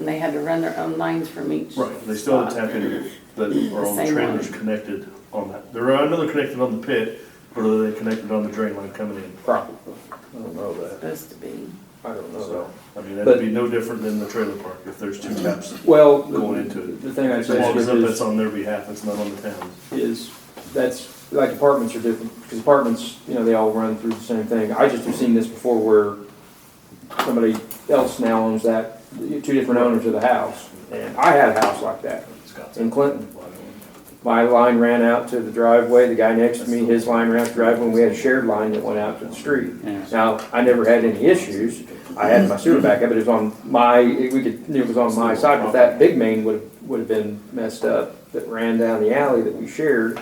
they had to run their own lines from each. Right, they still spot. tap into the, or The all the same trailers one. connected on that. They're, I know they're connected on the pit, but are they connected on the drain line coming in? Probably. I don't know that. Supposed to be. I don't know So, I mean, But- that'd be no different than the trailer park if there's two taps. that. Well, Going into the it. the thing I As say long as is, that's is, on their behalf, it's not on the town. is that's, like apartments are different, because apartments, you know, they all run through the same thing. I just have seen this before where somebody else now owns that, two different owners of the house. And I had a house like that in Clinton. My line ran out to the driveway, the guy next to me, his line ran out to the driveway, and we had a shared line that went out to the street. Now, I never had any issues, I had my sewer backup, but it was on my, we could, it was on my side, but that big main would, have would have been messed up, that ran down the alley that we shared,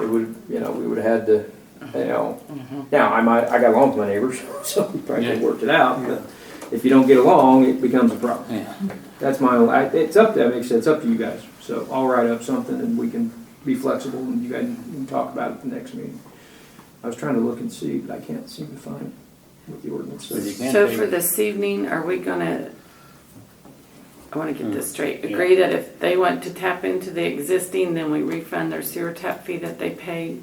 it would, you know, we would have had to, you know, now, I might, I got along with my neighbors, so we probably could have worked it out, but if you don't get along, it becomes a problem. That's my, I- it's up to, I makes it's up to you guys. So I'll write up something and we can be flexible and you guys can talk about it at the next meeting. I was trying to look and see, but I can't seem to find it with the ordinance. So you says. can So take- for this evening, are we gonna, I wanna get this straight, Hmm. Yeah. agree that if they want to tap into the existing, then we refund their sewer tap fee that they paid?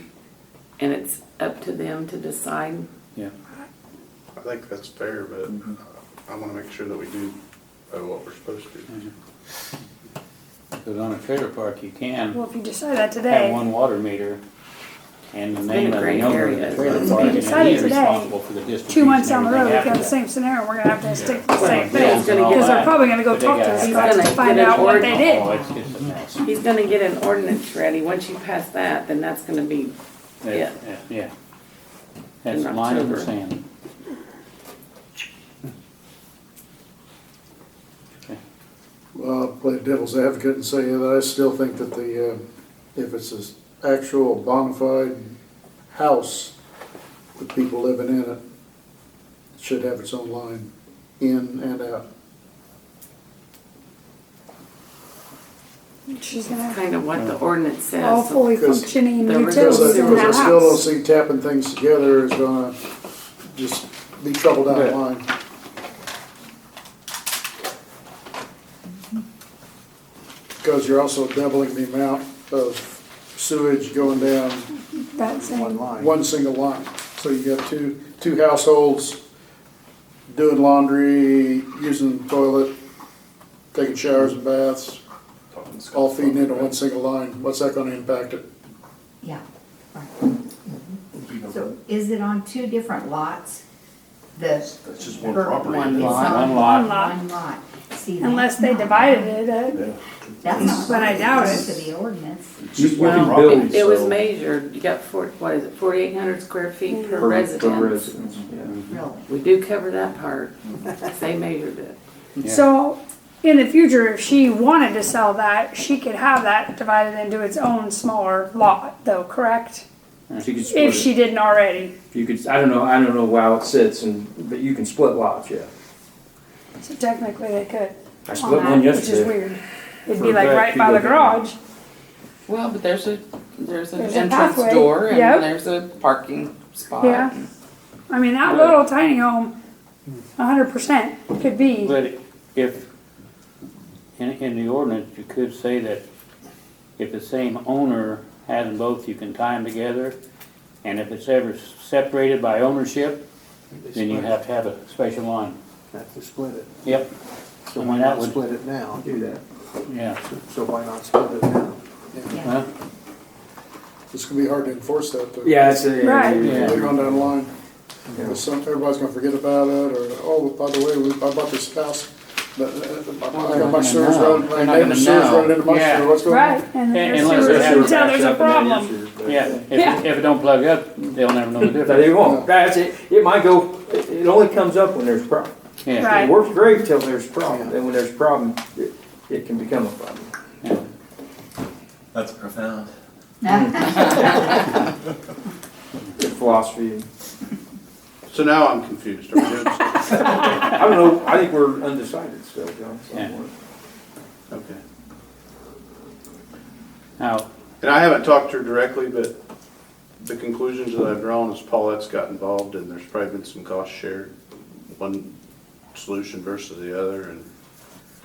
And it's up to them to decide? Yeah, I think that's fair, but Mm-hmm. I want to make sure that we do uh, what we're supposed to. because on a trailer park, you can Well, if you decide that have today, one water meter and the It's name been a of the great owner of area. the trailer It's park. been and decided he is today. responsible for the distribution two months down the and road, everything if you have after the that. same scenario, we're gonna have to stick to the Well, same bills thing. He's gonna and get- Because all they're that. probably gonna go But they talk to gotta these have guys gonna to find get an out what they ordinance. Oh, did. it's just a mess. He's gonna get an ordinance ready, once you pass that, then that's gonna be, Yeah, Yeah. yeah, Yeah. That's In line in the October. sand. Okay. Well, I'll play devil's advocate and say that I still think that the, uh, if it's an actual bona fide house with people living in it, it should have its own line in and out. She's gonna have kind of what Hmm. the ordinance all says. fully Because- functioning There was- Because I utilities in because I that still don't house. see tapping things together is gonna just be trouble down the Yeah. line. Because you're also doubling the amount of sewage going down That same, one single line. So you got two, two households doing laundry, using the toilet, taking showers and baths, all feeding into one single line. What's that gonna impact it? Yeah, right. So is it on two different lots? The. That's just one per- property. One It's lot. on One lot. One lot. See, that's unless they not- divided it up. Yeah. That's not. But I doubt it. To the ordinance. It's just You- you one can property, build- It it was so- measured, you got four, what is it, forty-eight hundred square feet per Per- per residence? residence, yeah. Really? We do cover that part, they measured it. Yeah. So in the future, if she wanted to sell that, she could have that divided into its own smaller lot though, correct? Mm-hmm. She could If split she it. didn't already. You could, I don't know, I don't know how it sits and, but you can split lots, yeah. So technically they could. I on split that, one Which is yesterday. weird. It'd For be a like fact, right you by go the down. garage. Well, but there's a, there's an There's a entrance pathway. door and Yep. there's a parking spot. Yeah. I mean, that little tiny home, hundred percent could be. But if, in, in the ordinance, you could say that if the same owner has them both, you can tie them together. And if it's ever separated by ownership, then you have to have a special line. Have to split it. Yep. So when that would, Split it now, Do that. yeah, so why not split it now? Yeah. well, It's gonna be hard to enforce that, though. Yeah, it's a. Right. Yeah. Later on down the line, Yeah. some, everybody's gonna forget about it, or, oh, by the way, we- I bought this house, but, uh, I got my sewers know. running, They're my not gonna neighbor's sewers know. running into my Yeah. sewer, what's going on? Right, and And- there's unless sewers, they have you it tell there's a problem. yeah, if, if it don't plug up, they'll never know the But it difference. won't, that's it, it might go, it it only comes up when there's a problem. Yeah, Right. It works great till there's a problem, and when there's a problem, it, it can become a problem. yeah. That's profound. Mm-hmm. The philosophy, So now I'm confused. Are we good? I don't know, I think we're undecided still, John. Yeah. Okay. Now, And I haven't talked to her directly, but the conclusions that I've drawn is Paulette's got involved and there's probably been some cost shared, one solution versus the other, and